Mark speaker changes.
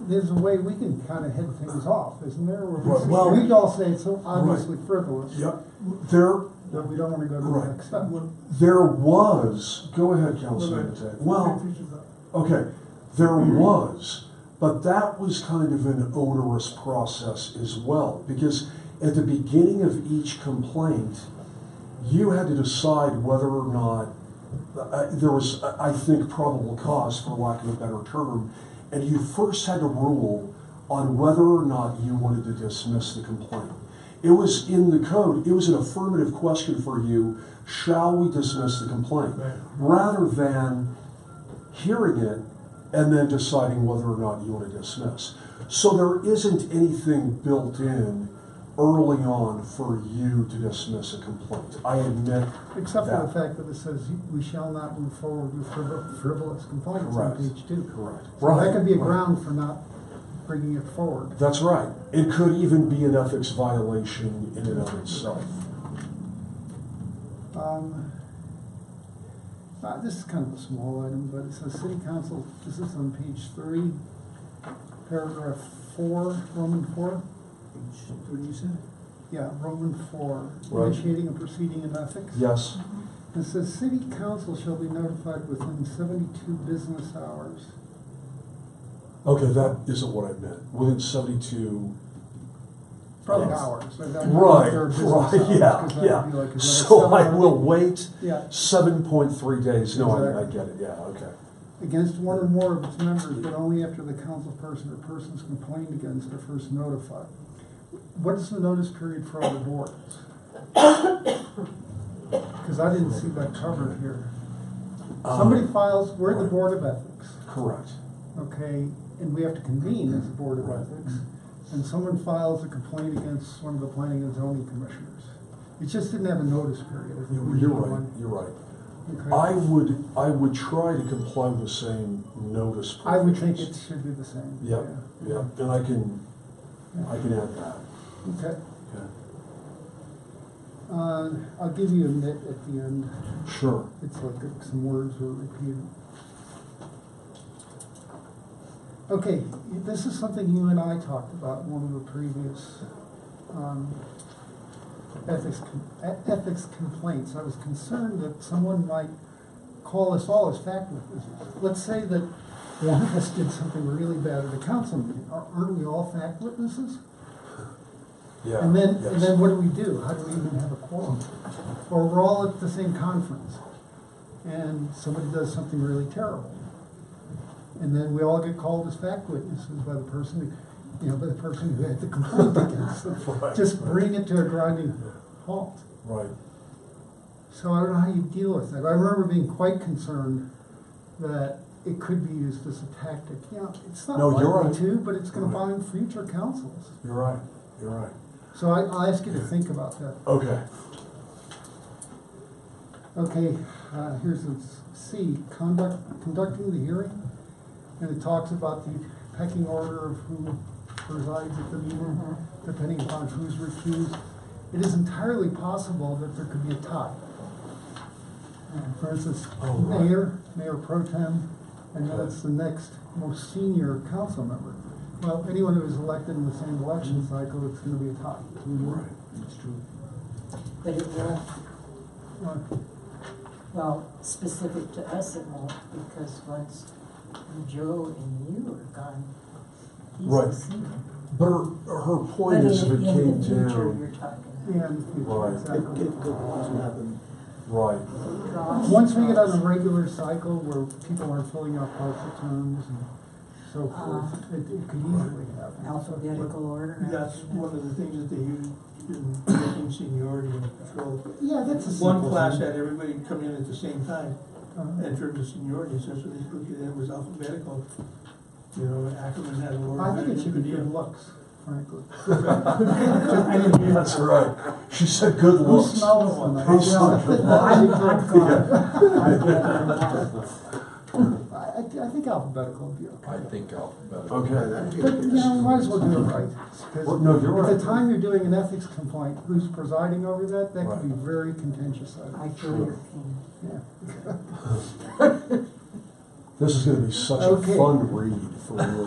Speaker 1: there's a way we can kind of head things off, isn't there? Or
Speaker 2: Well, well-
Speaker 1: We could all say it's so obviously frivolous,
Speaker 2: Yeah, there,
Speaker 1: that we don't want to go to the
Speaker 2: Right.
Speaker 1: next step.
Speaker 2: there was, go ahead, Mm-hmm. Councilman Matei. Well, okay, there was, but that was kind of an onerous process as well, because at the beginning of each complaint, you had to decide whether or not, uh, there was, I I think, probable cause, for lack of a better term, and you first had to rule on whether or not you wanted to dismiss the complaint. It was in the code, it was an affirmative question for you, shall we dismiss the complaint? Rather than hearing it and then deciding whether or not you want to dismiss. So there isn't anything built in early on for you to dismiss a complaint. I admit
Speaker 1: Except for
Speaker 2: that.
Speaker 1: the fact that it says we shall not move forward with frivol- frivolous complaints on
Speaker 2: Correct.
Speaker 1: page two.
Speaker 2: Correct.
Speaker 1: So that could be a
Speaker 2: Right.
Speaker 1: ground for not bringing it forward.
Speaker 2: That's right. It could even be an ethics violation in and of itself.
Speaker 1: Um, uh, this is kind of a small item, but it says city council, this is on page three, paragraph four, Roman four.
Speaker 3: What do you say?
Speaker 1: Yeah, Roman four,
Speaker 2: Right.
Speaker 1: initiating a proceeding in ethics.
Speaker 2: Yes,
Speaker 1: It says city council shall be notified within seventy-two business hours.
Speaker 2: okay, that isn't what I meant. Within seventy-two.
Speaker 1: Probably
Speaker 2: Yes.
Speaker 1: hours. so that-
Speaker 2: Right,
Speaker 1: their business
Speaker 2: right,
Speaker 1: hours, 'cause
Speaker 2: yeah,
Speaker 1: that would be like
Speaker 2: yeah.
Speaker 1: another
Speaker 2: So I
Speaker 1: seven-
Speaker 2: will wait
Speaker 1: Yeah,
Speaker 2: seven point three days. No, I, I
Speaker 1: Exactly.
Speaker 2: get it, yeah, okay.
Speaker 1: against one or more of its members, but only after the council person or persons complained against are first notified. What is the notice period for other boards? Because I didn't see that covered here.
Speaker 2: Um,
Speaker 1: Somebody files, we're the
Speaker 2: right.
Speaker 1: Board of Ethics.
Speaker 2: Correct,
Speaker 1: okay, and we have to convene as a board of
Speaker 2: Right.
Speaker 1: ethics, and someone files a complaint against one of the planning and zoning commissioners. It just didn't have a notice period. I think we
Speaker 2: you're you're
Speaker 1: need
Speaker 2: right,
Speaker 1: one.
Speaker 2: you're right.
Speaker 1: Okay.
Speaker 2: I would, I would try to comply with the same notice.
Speaker 1: I would think it
Speaker 2: provisions.
Speaker 1: should be the same.
Speaker 2: Yep, yep, and I can, I can add that,
Speaker 1: Okay,
Speaker 2: okay?
Speaker 1: uh, I'll give you a nit at the end,
Speaker 2: Sure.
Speaker 1: it's like some words were repeated. Okay, this is something you and I talked about in one of the previous, um, ethics, com- e- ethics complaints. I was concerned that someone might call us all as fact witnesses. Let's say that one of us did something really bad at a council meeting, Are- aren't we all fact witnesses?
Speaker 2: Yeah.
Speaker 1: And then, and
Speaker 2: yes.
Speaker 1: then what do we do? How do we even have a quorum? Or we're all at the same conference, and somebody does something really terrible. And then we all get called as fact witnesses by the person, who you know, by the person who had the complaint against them.
Speaker 2: Right,
Speaker 1: Just
Speaker 2: right.
Speaker 1: bring it to a grinding halt.
Speaker 2: Right.
Speaker 1: So I don't know how you deal with that. I remember being quite concerned that it could be used as a tactic. You know, it's not
Speaker 2: No, you're
Speaker 1: likely
Speaker 2: right.
Speaker 1: to, but it's gonna
Speaker 2: Right.
Speaker 1: bind future councils.
Speaker 2: You're right. You're right.
Speaker 1: So I, I'll ask you to think about that.
Speaker 2: Okay.
Speaker 1: Okay, uh, here's a s- C, conduct, conducting the hearing, and it talks about the pecking order of who presides at the meeting, depending upon who's recused. It is entirely possible that there could be a tie. Uh, For instance,
Speaker 2: Oh, right.
Speaker 1: mayor, mayor pro tem, and
Speaker 2: Okay.
Speaker 1: that's the next most senior council member. Well, anyone who is elected in the same election cycle, it's gonna be a tie.
Speaker 2: Right.
Speaker 3: It's true.
Speaker 4: But it won't,
Speaker 1: Uh,
Speaker 4: well, specific to us, it won't, because once Joe and you are gone, he's
Speaker 2: Right.
Speaker 4: a senior.
Speaker 2: But her, her point is if it
Speaker 4: But in- in
Speaker 2: came
Speaker 4: the future,
Speaker 2: down,
Speaker 4: you're talking.
Speaker 1: Yeah, in the future,
Speaker 2: Right.
Speaker 3: It,
Speaker 1: exactly.
Speaker 3: it could also happen.
Speaker 2: right,
Speaker 4: Draws-
Speaker 1: Once we get on
Speaker 4: draws.
Speaker 1: a regular cycle where people are filling out partial terms and so forth, it, it could easily happen.
Speaker 4: Alphabetical order. and
Speaker 5: That's
Speaker 4: everything.
Speaker 5: one of the things that they use in making seniority and control.
Speaker 1: Yeah, that's a simple.
Speaker 5: One class
Speaker 1: thing.
Speaker 5: had everybody come in at the same time,
Speaker 1: Uh,
Speaker 5: in terms of seniority, so so they looked at it, it was alphabetical. You know, Ackerman had a lower.
Speaker 1: I think it should be
Speaker 5: than
Speaker 1: good
Speaker 5: you.
Speaker 1: looks, frankly.
Speaker 2: that's right. She said good
Speaker 1: Who
Speaker 2: looks.
Speaker 1: smells one?
Speaker 2: Who smells one?
Speaker 4: I'm, I'm gone.
Speaker 1: I, I, I think alphabetical would be
Speaker 6: I
Speaker 1: okay.
Speaker 6: think alphabetical.
Speaker 2: Okay.
Speaker 1: But, you know, we might as well do it right. 'cause
Speaker 2: Well, no, you're
Speaker 1: At
Speaker 2: right.
Speaker 1: the time you're doing an ethics complaint, who's presiding over that, that could be
Speaker 2: Right.
Speaker 1: very contentious, I
Speaker 4: I
Speaker 1: think.
Speaker 4: feel your pain.
Speaker 1: Yeah.
Speaker 2: This is going to be such a
Speaker 1: Okay.
Speaker 2: fun read for you.